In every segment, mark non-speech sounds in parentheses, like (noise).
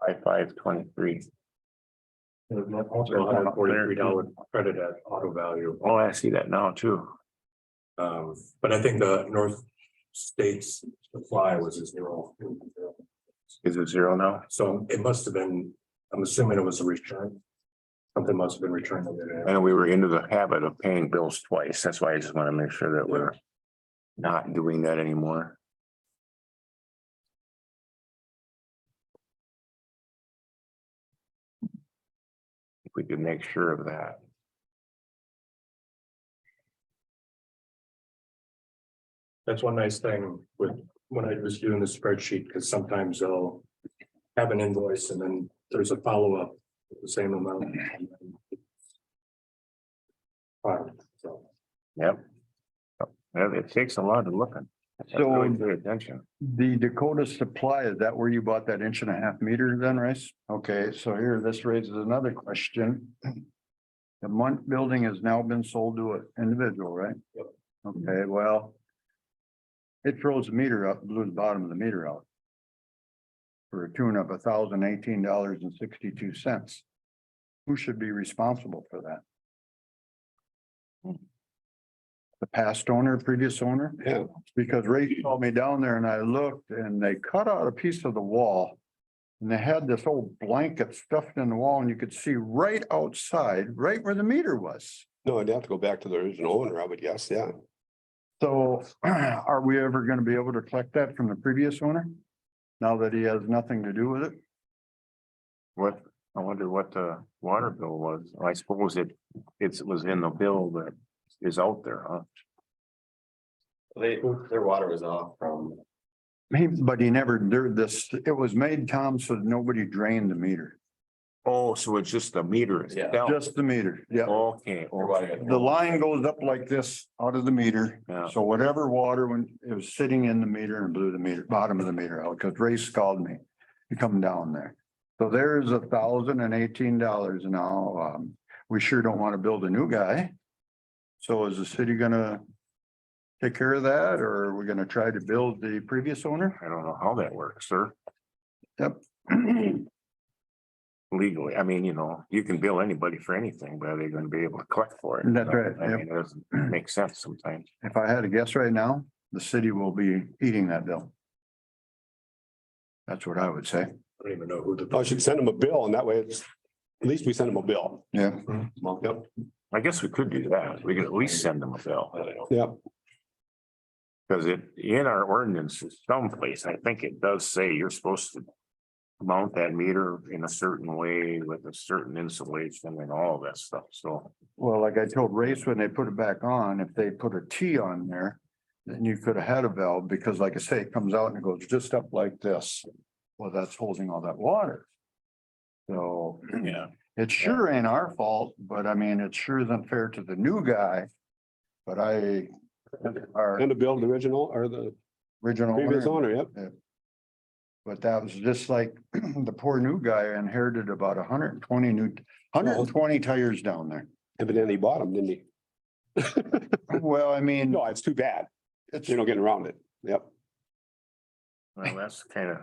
by five twenty-three. Also, a hundred forty-three dollar credit at auto value. Oh, I see that now too. Um, but I think the North States supply was a zero. Is it zero now? So it must have been, I'm assuming it was a return. Something must have been returned. over there. And we were into the habit of paying bills twice. That's why I just want to make sure that we're not doing that anymore. If we could make sure of that. That's one nice thing with, when I was doing the spreadsheet, because sometimes they'll have an invoice and then there's a follow-up, with the same amount. Fine, so. Yeah, It takes a lot of looking. Really So good attention. the Dakota Supply, is that where you bought that inch and a half meter then, Rice? Okay, so here, this raises another question. The Munt Building has now been sold to an individual, right? Yep. Okay, well. It throws the meter up, blew the bottom of the meter out. For a tune of thousand eighteen dollars and sixty-two cents. Who should be responsible for that? Hmm. The past owner, previous owner? Yeah. Because Ray called me down there and I looked and they cut out a piece of the wall. And they had this old blanket stuffed in the wall and you could see right outside, right where the meter was. No, I'd have to go back to the original owner, I would guess, yeah. So (clears throat) are we ever gonna be able to collect that from the previous owner? Now that he has nothing to do with it? What, I wonder what the water bill was. I suppose it, it was in the bill that is out there, huh? They, their water was off from, He- But he never, there, this, it was made, Tom, so that nobody drained the meter, Oh, so it's just the meter Yeah. itself. just the meter, yeah. Okay, their water okay. got- The line goes up like this out of the meter. Yeah. So whatever water when it was sitting in the meter and blew the meter, bottom of the meter out, because Ray called me to come down there. So there's a thousand and eighteen dollars now. Um, we sure don't want to build a new guy. So is the city gonna take care of that or are we gonna try to build the previous owner? (clears throat) I don't know how that works, sir. Yep. Legally, I mean, you know, you can bill anybody for anything, but are they gonna be able to collect for it? That's right, I yep. mean, it doesn't make sense sometimes. If I had to guess right now, the city will be eating that bill. That's what I would say. I don't even know who the. I should send Oh, him a bill and that way it's, at least we send him a bill. Yeah. Yep, I guess we could do that. We could at least send them a bill, yep. because it, in our ordinances someplace, I think it does say you're supposed to. Mount that meter in a certain way with a certain insulation and all that stuff, so. Well, like I told Race, when they put it back on, if they put a T on there, then you could have had a valve, because like I say, it comes out and it goes just up like this. Well, that's holding all that water. So (clears throat) Yeah. it sure ain't our fault, but I mean, it sure isn't fair to the new guy. But I, our And a bill to the original or the original previous owner, owner, yep. but that was just like (clears throat) the poor new guy inherited about hundred and twenty new, hundred and twenty tires down there. Evidently he bought them, didn't he? (laughs) Well, I mean, No, Oh, it's too bad. it's. You know, getting around it. Yep. Well, that's kind of,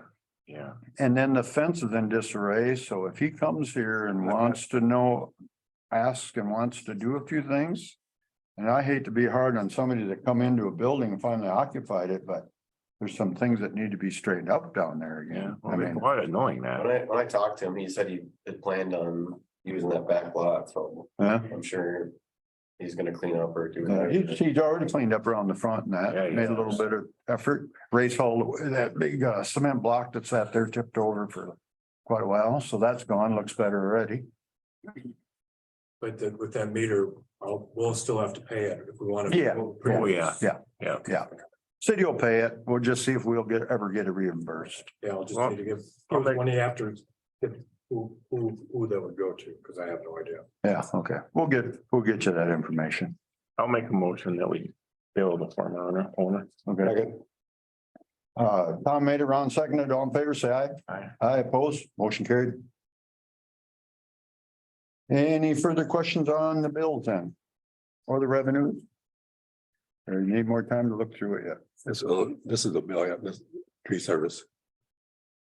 yeah. And then the fence is in disarray, so if he comes here and wants to know, asks and wants to do a few things. And I hate to be hard on somebody that come into a building and finally occupied it, but there's some things that need to be straightened up down there again. I Well, mean, Quite annoying when that. I, when I talked to him, he said he had planned on using that back lot, so huh? I'm sure. He's gonna clean up or do. Uh, whatever. He's, he's already cleaned up around the front and Yeah, that, he made a has. little bit of effort, raised all the- that big uh, cement block that sat there tipped over for quite a while, so that's gone, looks better already. But that with that meter, I'll, we'll still have to pay it if we want to. Yeah. Oh, yeah. City will pay it, we'll just see if we'll get, ever get it reimbursed. Yeah, I'll just Well, need to give, I'll give make- money after, it's- if- who, who, who that would go to, because I have no idea. Yeah, okay, we'll get, we'll get you that information. I'll make a motion that we bill the former owner, owner. Okay. Second. Uh, Tom made it, Ron seconded, all in favor, say aye. Aye. Aye, opposed, motion carried. Any further questions on the bills then? Or the revenues? Or you need more time to look through it yet? This, uh, this is a bill, yeah, this tree service.